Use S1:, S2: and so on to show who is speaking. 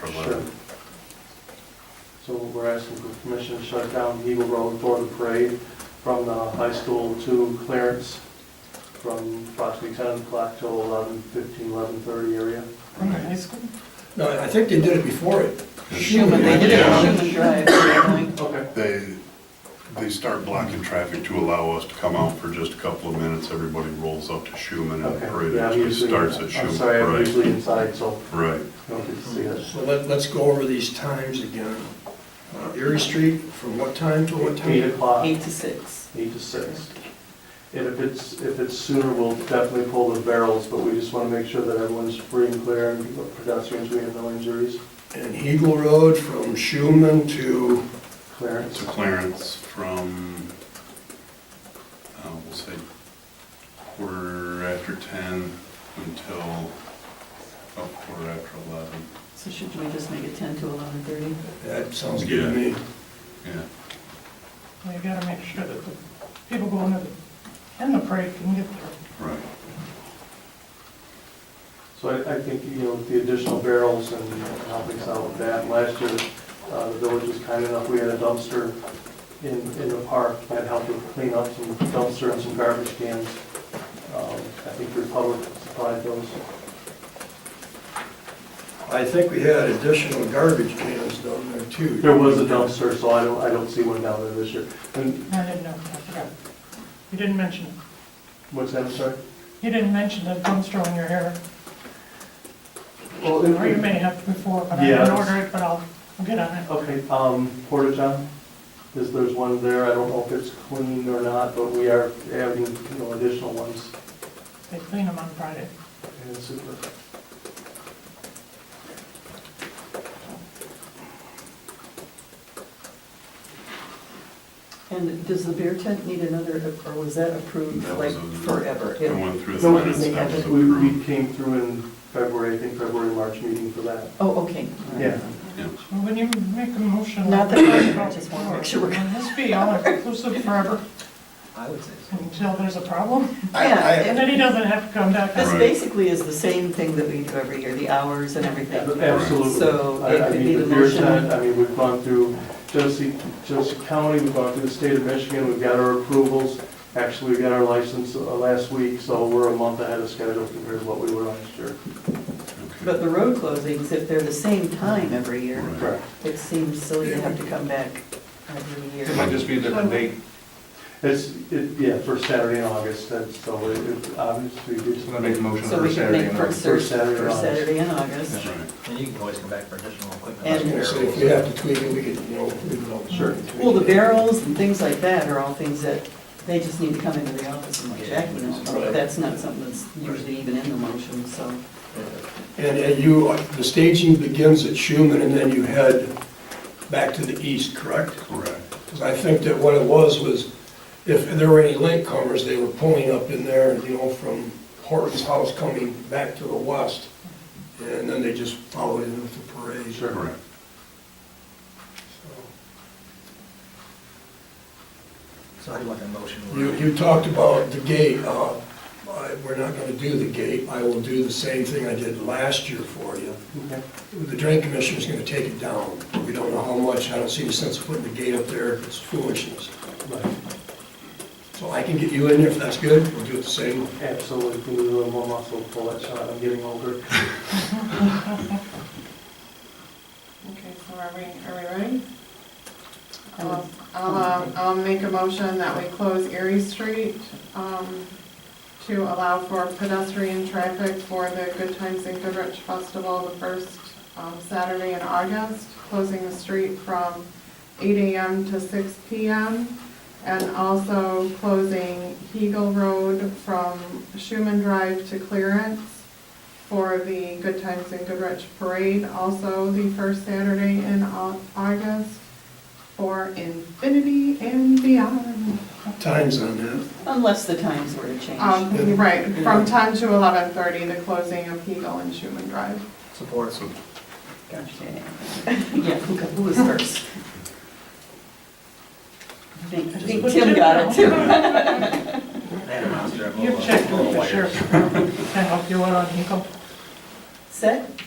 S1: Sure.
S2: line.
S1: So we're asking for permission to shut down Eagle Road for the parade from the high school to Clarence from approximately 10 o'clock till 11, 15, 11:30 area.
S3: From the high school?
S4: No, I think they did it before it.
S3: Schuman, they did it
S2: Yeah.
S3: at Schuman Drive, originally.
S1: Okay.
S2: They, they start blocking traffic to allow us to come out for just a couple of minutes. Everybody rolls up to Schuman and the parade
S1: Yeah, I'm
S2: actually
S1: usually-
S2: starts at
S1: I'm sorry, I'm
S2: Schuman. Right,
S1: usually inside, so
S2: right.
S1: I don't get to see it.
S4: So let, let's go over these times again. Uh, Erie Street, from what time to what time?
S1: 8 o'clock,
S3: Eight to six.
S1: 8 to 6. And if it's, if it's sooner, we'll definitely pull the barrels, but we just want to make sure that everyone's free and clear and pedestrians, we have no injuries.
S4: And Eagle Road from Schuman to,
S1: Clarence.
S2: To Clarence from, uh, we'll say quarter after 10 until, about quarter after 11.
S3: So should we just make it ten to eleven thirty?
S4: that sounds good to me.
S2: Yeah.
S5: Well, you gotta make sure that the people going to the, in the parade can get there.
S2: Right.
S1: So I, I think, you know, with the additional barrels and helping us out with that, last year, uh, the village was kind enough, we had a dumpster in, in the park that helped us clean up some dumpster and some garbage cans. Um, I think Republic supplied those.
S4: I think we had additional garbage cans down there too.
S1: There was a dumpster, so I don't, I don't see one down there this year. And
S5: I didn't know, I forgot. You didn't mention it.
S1: what's that, I'm sorry?
S5: You didn't mention the dumpster on your hair,
S1: Well,
S5: or you
S1: it-
S5: may have before, but I didn't
S1: Yes.
S5: order it, but I'll, I'll get on it.
S1: Okay, um, Porta John, is, there's one there, I don't know if it's clean or not, but we are adding, you know, additional ones.
S5: They clean them on Friday.
S1: And super.
S3: And does the beer tent need another, or was that approved
S2: That
S3: like
S2: was a-
S3: forever?
S2: I went through the
S1: No,
S2: minutes,
S3: they
S2: that was
S3: haven't-
S1: We, we
S2: approved.
S1: came through in February, I think February, March meeting for that.
S3: Oh, okay. All right.
S1: Yeah.
S2: Yeah.
S5: Well, When you make a motion.
S3: Not that I just wanna make sure we're-
S5: Can this be all inclusive forever
S3: I would say so.
S5: until there's a problem?
S4: I-
S3: Yeah,
S4: I-
S5: And then he doesn't have to come back.
S3: This
S2: Right.
S3: basically is the same thing that we do every year, the hours and everything.
S1: Absolutely.
S3: So
S1: I-
S3: it
S1: I
S3: could
S1: mean,
S3: be
S1: the
S3: the
S1: beer
S3: motion.
S1: tent, I mean, we've gone through Genesee, Genesee County, we've gone through the state of Michigan, we've got our approvals. Actually, we got our license uh, last week, so we're a month ahead of schedule compared to what we were last year.
S3: But the road closings, if they're the same time every year,
S2: Right.
S1: Correct.
S3: it seems silly to have to come back every year.
S6: It might just be a different date.
S1: It's, it, yeah, first Saturday in August, that's, so it, it obviously,
S6: I'm gonna make a
S1: it's
S6: motion
S3: So
S6: for
S3: we could
S6: Saturday.
S3: make
S6: and
S3: first
S6: August.
S3: Thursday,
S1: First Saturday in
S3: first
S1: August.
S3: Saturday in August.
S2: That's right.
S7: And you can always come back for additional equipment.
S4: I was gonna say, if you have to tweak it, we could, you know. we could always
S1: Sure.
S4: tweak
S3: Well, the
S4: it.
S3: barrels and things like that are all things that, they just need to come into the office and let Jackie know. about. That's not something that's usually even in the motion, so.
S4: And and you, the staging begins at Schuman and then you head back to the east, correct?
S2: Correct.
S4: Because I think that what it was, was if there were any latecomers, they were pulling up in there, you know, from Horton's house coming back to the west, and then they just followed in with the parade.
S2: Correct.
S4: So,
S7: So I do want that motion.
S4: You, you talked about the gate, uh, I- we're not gonna do the gate, I will do the same thing I did last year for you.
S1: Okay.
S4: The drain commissioner's gonna take it down, we don't know how much, I don't see any sense of putting the gate up there, it's foolishness.
S1: Right.
S4: So I can get you in there if that's good, we'll do it the same.
S1: Absolutely, we need a little more muscle to pull that shot, I'm getting older.
S8: Okay, so are we, are we ready?
S3: I would-
S8: I'll, uh, I'll make a motion that we close Erie Street um, to allow for pedestrian traffic for the Good Times and Goodrich Festival, the first um, Saturday in August, closing the street from 8 AM to 6 PM, and also closing Hegel Road from Schuman Drive to Clearance for the Good Times and Goodrich Parade, also the first Saturday in Au- August for Infinity and Beyond.
S4: Times on that.
S3: Unless the times were to change.
S8: Um, right, from 10 to 11:30, the closing of Hegel and Schuman Drive.
S7: Support.
S2: So
S3: Gotcha. Yeah, who got- who was first? I think I think Tim got it too.
S7: You've
S5: You've checked with the sheriff's department, I hope you went on Hinkle.
S3: Set?